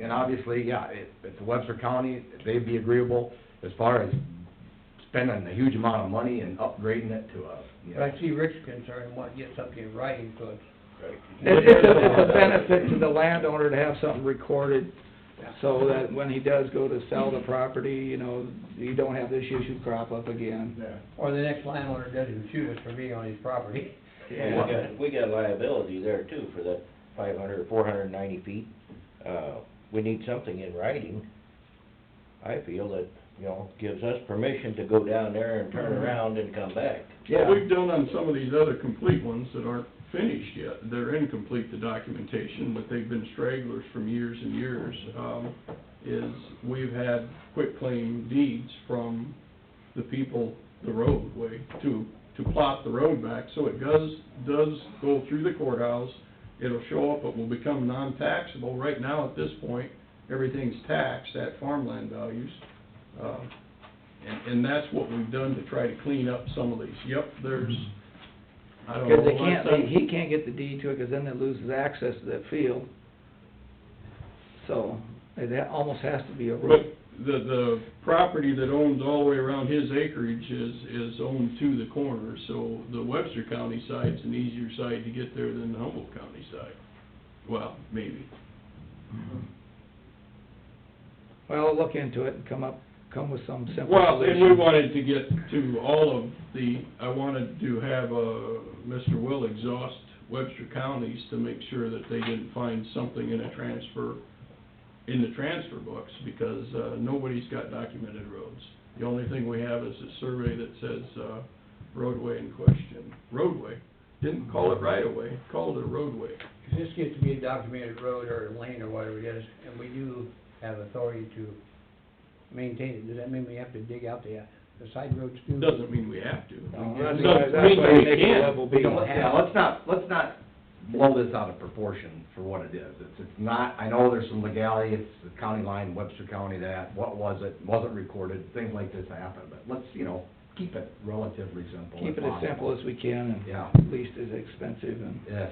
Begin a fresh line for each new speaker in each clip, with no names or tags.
and obviously, yeah, it, it's Webster County, they'd be agreeable as far as spending a huge amount of money and upgrading it to a, you
But
know.
I see Rick's concerned, what gets up in writing, so it's.
It, it's a, it's a benefit to the landowner to have something recorded, so that when he does go to sell the property, you know, you don't have this issue crop up again.
Yeah.
Or the next landowner doesn't sue us for being on his property.
Yeah.
We got, we got liability there too for that five hundred, four hundred and ninety feet. Uh, we need something in writing, I feel that, you know, gives us permission to go down there and turn around and come back.
Yeah.
What Mm-hmm. we've done on some of these other complete ones that aren't finished yet, they're incomplete, the documentation, but they've been stragglers from years and years, um, is we've had quitclaim deeds from the people, the roadway, to, to plot the road back, so it does, does go through the courthouse, it'll show up, it will become non-taxable, right now at this point, everything's taxed at farmland values. Um, and, and that's what we've done to try to clean up some of these. Yep, there's, I don't know.
Cause they
last
can't,
time-
they- he can't get the deed to it, cause then it loses access to that field. So, it ha- almost has to be a road.
But the, the property that owns all the way around his acreage is, is owned to the corner, so the Webster County side's an easier side to get there than the Humboldt County side. Well, maybe.
Well, I'll look into it and come up, come with some simple
Well, and we
solution.
wanted to get to all of the, I wanted to have, uh, Mr. Will exhaust Webster counties to make sure that they didn't find something in a transfer, in the transfer books, because, uh, nobody's got documented roads. The only thing we have is a survey that says, uh, roadway in question, roadway. Didn't call it right of way, called it a roadway.
If this gets to be a documented road or a lane or whatever it is, and we do have authority to maintain it, does that mean we have to dig out the, the side roads too?
Doesn't mean we have to.
No, that's
Doesn't
why- that's
mean
why
we
we make it
can't.
level B.
Let's- Yeah, let's not, let's not blow this out of proportion for what it is. It's, it's not, I know there's some legality, it's the county line, Webster County that, what was it, wasn't recorded, things like this happen, but let's, you know, keep it relatively simple.
Keep it as
possible.
simple as we can
Yeah.
and least as expensive and.
Yes,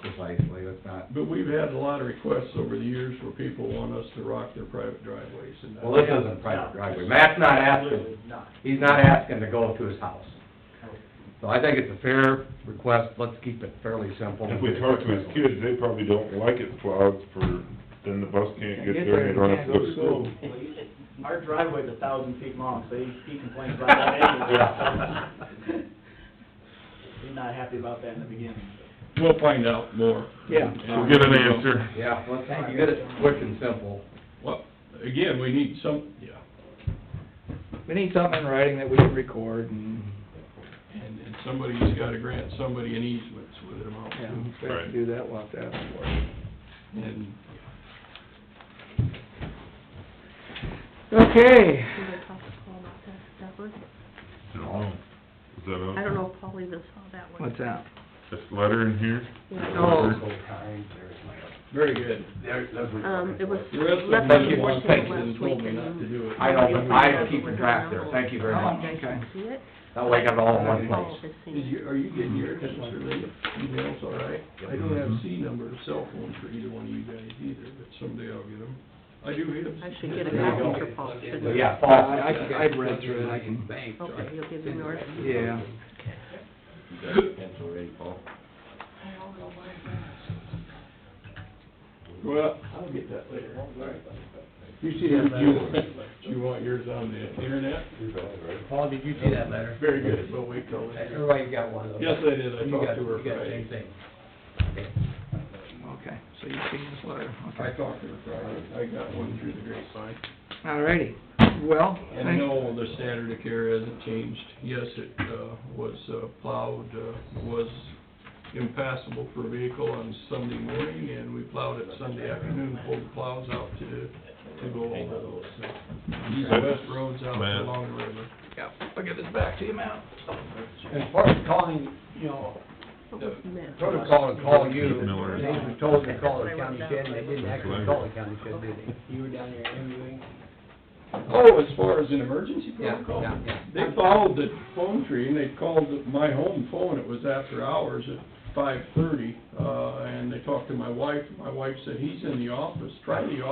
precisely, let's not,
But we've had a lot of requests over the years where people want us to rock their private driveways and that.
well, this isn't private driveway. Matt's not asking, he's not asking to go to his house. So I think it's a fair request, let's keep it fairly simple.
If we talk to his kids, they probably don't like it plowed for, then the bus can't get there and they don't have to go to school.
Our driveway's a thousand feet long, so he he complains about that anyway. so. He's not happy about that in the beginning.
We'll find out more.
Yeah.
We'll get an answer.
Yeah, let's get it quick and simple.
Well, again, we need some, yeah,
We need something in writing that we can record and,
and, and somebody's gotta grant somebody an easement with an amount
yeah,
too.
if we have to
Right.
do that, we'll have to ask for it.
And
Okay,
Did I talk to Paul about that, that was,
No. Is that on?
I don't know if Paul even saw that one.
what's that?
This letter in here?
Yeah.
Oh,
Very good.
Um, it was
The rest of
left
them
on
did
your
it one
porch
thing
last
and
week
told me not to
and.
do it.
I know, but I am keeping track there, thank you very much.
okay.
See it?
That way I got it all in one
Paul
place.
has seen
Is
it.
you, are you getting your Mr. Lee? Emails, all right? I don't have C number of cell phones for either one of you guys either, but someday I'll get them. I do have.
I should get a
There you go.
copy for Paul, shouldn't
But
I?
yeah,
I,
Paul,
I- I've read through it, I can,
Bank,
Okay, you'll give me yours.
yeah.
You got a pencil ready, Paul?
Well, I'll get that later. You see that letter? You want yours on the internet?
Paul, did you see that letter?
Very good, we'll wait till later.
Everybody got one of those?
Yes, I did, I
You got,
talked to her
you got the same
Friday.
thing.
Okay, so you've seen this letter,
I
okay.
talked to her Friday, I got one through the grapevine.
All righty, well,
And no, the standard of care hasn't changed. Yes, it, uh, was uh, plowed, uh, was impassable for a vehicle on Sunday morning, and we plowed it Sunday afternoon, pulled the plows out to, to go over those. East and west roads out
Matt.
along the river.
yeah, I'll give this back to you, Matt.
As far as calling, you know,
What was meant?
protocol to call you,
Miller.
they were told to call the county shed, and they didn't actually call the county shed, did they? You were down there interviewing?
Oh, as far as an emergency
Yeah,
protocol?
yeah, yeah.
They followed the phone tree, and they called my home phone, it was after hours at five thirty, uh, and they talked to my wife, my wife said, he's in the office, try the